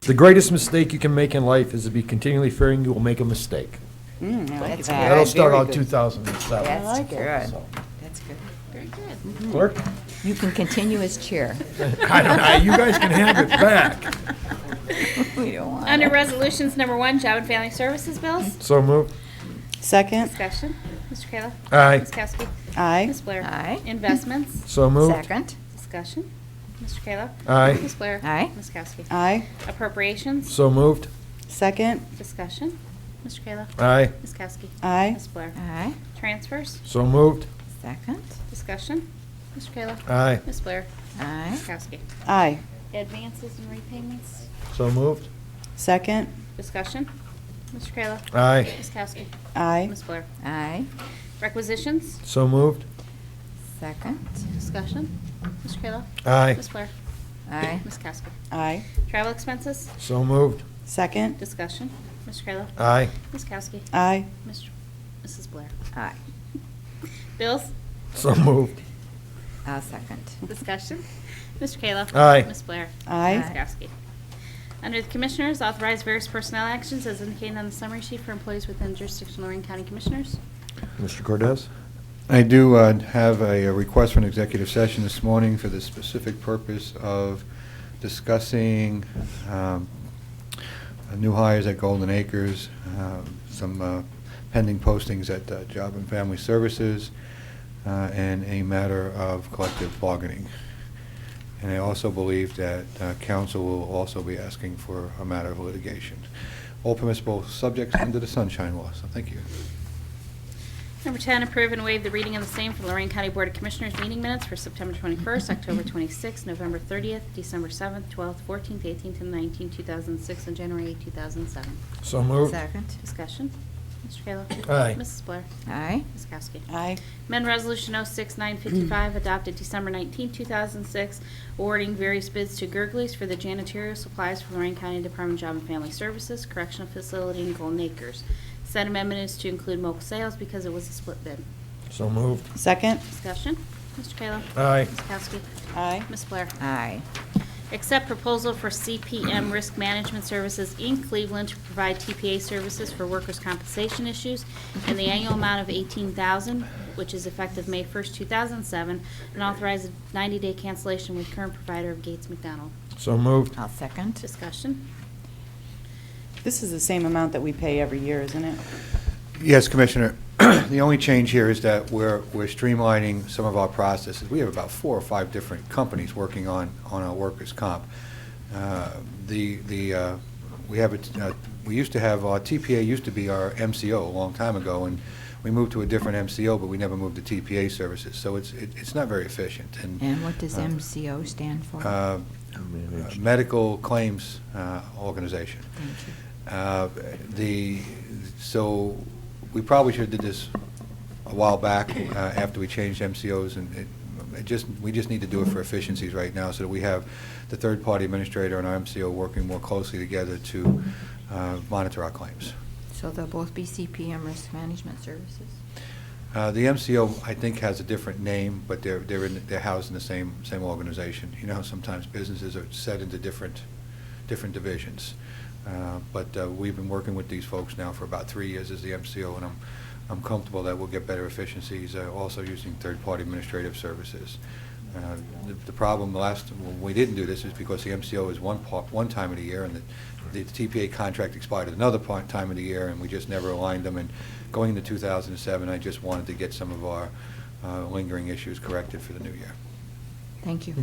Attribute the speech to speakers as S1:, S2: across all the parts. S1: The greatest mistake you can make in life is to be continually fearing you will make a mistake.
S2: Mm, I like
S3: All
S2: that.
S3: right,
S1: That'll start
S3: very
S1: out
S3: good.
S1: 2007.
S3: That's
S2: like it.
S3: good.
S1: So,
S3: That's good. Very good.
S1: Clerk?
S3: You can continue as chair.
S1: I don't know, you guys can have it back.
S3: We don't want
S4: Under
S3: it.
S4: Resolutions Number One, Job and Family Services Bills,
S1: So moved.
S2: Second,
S4: discussion. Mr. Kayla.
S1: Aye.
S4: Ms. Kowski.
S2: aye.
S4: Ms. Blair.
S3: Aye.
S4: Investments,
S1: So moved.
S3: Second,
S4: discussion. Mr. Kayla.
S1: Aye.
S4: Ms. Blair.
S3: Aye.
S4: Ms. Kowski.
S2: Aye.
S4: Appropriations,
S1: So moved.
S2: Second,
S4: discussion. Mr. Kayla.
S1: Aye.
S4: Ms. Kowski.
S2: aye.
S4: Ms. Blair.
S3: aye.
S4: Transfers,
S1: So moved.
S3: Second,
S4: discussion. Mr. Kayla.
S1: Aye.
S4: Ms. Blair.
S3: aye.
S4: Ms. Kowski.
S2: Aye.
S4: Advances and repayments,
S1: So moved.
S2: Second,
S4: discussion. Mr. Kayla.
S1: Aye.
S4: Ms. Kowski.
S2: aye.
S4: Ms. Blair.
S3: Aye.
S4: Requisitions,
S1: So moved.
S3: Second,
S4: discussion. Mr. Kayla.
S1: Aye.
S4: Ms. Blair.
S3: aye.
S4: Ms. Kowski.
S2: Aye.
S4: Travel expenses,
S1: So moved.
S2: Second,
S4: discussion. Mr. Kayla.
S1: Aye.
S4: Ms. Kowski.
S2: aye.
S4: Mr. Mrs. Blair.
S3: Aye.
S4: Bills,
S1: So moved.
S3: Uh, second,
S4: discussion. Mr. Kayla.
S1: Aye.
S4: Ms. Blair. Ms.
S2: Aye.
S4: Kowski. Under the Commissioners, authorize various personnel actions as indicated on the summary sheet for employees within jurisdiction of Lorraine County Commissioners.
S1: Mr. Cordez?
S5: I do uh, have a a request for an executive session this morning for the specific purpose of discussing um, uh, new hires at Golden Acres, um, some uh, pending postings at uh, Job and Family Services, uh, and a matter of collective bargaining. And I also believe that uh, council will also be asking for a matter of litigation. All permissible subjects under the sunshine law, so thank you.
S4: Number 10, approve and waive the reading of the same for Lorraine County Board of Commissioners meeting minutes for September 21st, October 26th, November 30th, December 7th, 12th, 14th, 18th, and 19th, 2006, and January 8th, 2007.
S1: So moved.
S3: second,
S4: Discussion. Mr. Kayla.
S1: Aye.
S4: Mrs. Blair.
S3: aye.
S4: Ms. Kowski.
S2: Aye.
S4: Amendment Resolution 06955, adopted December 19, 2006, awarding various bids to Gerglies for the janitorial supplies for Lorraine County Department of Job and Family Services Correctional Facility in Golden Acres. Said amendment is to include mobile sales because it was a split bid.
S1: So moved.
S2: Second,
S4: Discussion. Mr. Kayla.
S1: Aye.
S4: Ms. Kowski.
S2: aye.
S4: Ms. Blair.
S3: Aye.
S4: Accept proposal for CPM Risk Management Services, Inc., Cleveland, to provide TPA services for workers' compensation issues in the annual amount of $18,000, which is effective May 1st, 2007, and authorize a 90-day cancellation with current provider of Gates McDonald.
S1: So moved.
S3: I'll second,
S4: Discussion.
S2: This is the same amount that we pay every year, isn't it?
S5: Yes, Commissioner. The only change here is that we're we're streamlining some of our processes. We have about four or five different companies working on on our workers' comp. Uh, The, the uh, we have, a t- uh, we used to have, our TPA used to be our MCO a long time ago, and we moved to a different MCO, but we never moved to TPA services. So it's it- it's not very efficient. And
S3: and what does
S5: Uh,
S3: MCO stand for?
S5: uh, Medical Claims uh, Organization.
S3: Thank you.
S5: Uh, The, so, we probably should have did this a while back, uh, after we changed MCOs, and it- it just, we just need to do it for efficiencies right now, so that we have the third-party administrator and our MCO working more closely together to uh, monitor our claims.
S3: So they'll both be CPM Risk Management Services?
S5: Uh, The MCO, I think, has a different name, but they're, they're in, they're housed in the same, same organization. You know, how sometimes businesses are set into different, different divisions. Uh, But uh, we've been working with these folks now for about three years as the MCO, and I'm, I'm comfortable that we'll get better efficiencies, uh, also using third-party administrative services. Uh, the- The problem last, when we didn't do this is because the MCO is one part, one time of the year, and the, the TPA contract expired at another part, time of the year, and we just never aligned them, and going into 2007, I just wanted to get some of our uh, lingering issues corrected for the new year.
S3: Thank you.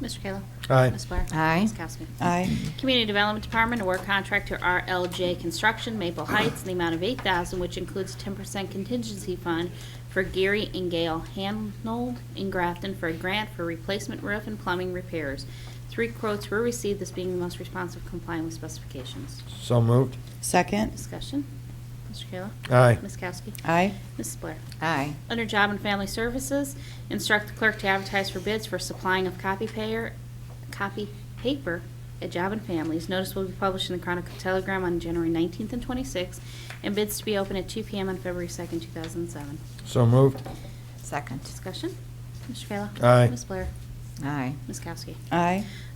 S4: Mr. Kayla.
S1: Aye.
S4: Ms. Blair.
S3: Aye.
S4: Ms. Kowski.
S2: Aye.
S4: Community Development Department award contract to RLJ Construction Maple Heights in the amount of 8000 which includes 10% contingency fund for Gary and Gail Hanold in Grafton for a grant for replacement roof and plumbing repairs. Three quotes were received, this being the most responsive complying with specifications.
S1: So moved.
S2: Second,
S4: Discussion. Mr. Kayla.
S1: Aye.
S4: Ms. Kowski.
S2: aye.
S4: Mrs. Blair.
S3: Aye.
S4: Under Job and Family Services, instruct the clerk to advertise for bids for supplying of copy payer, copy paper at Job and Families. Notice will be published in the Chronicle Telegram on January 19th and 26th, and bids to be open at 2 PM on February 2nd, 2007.
S1: So moved.
S3: Second,
S4: Discussion? Mr. Kayla?
S1: Aye.
S4: Ms. Blair?
S3: aye.
S4: Ms. Kowski?
S2: Aye.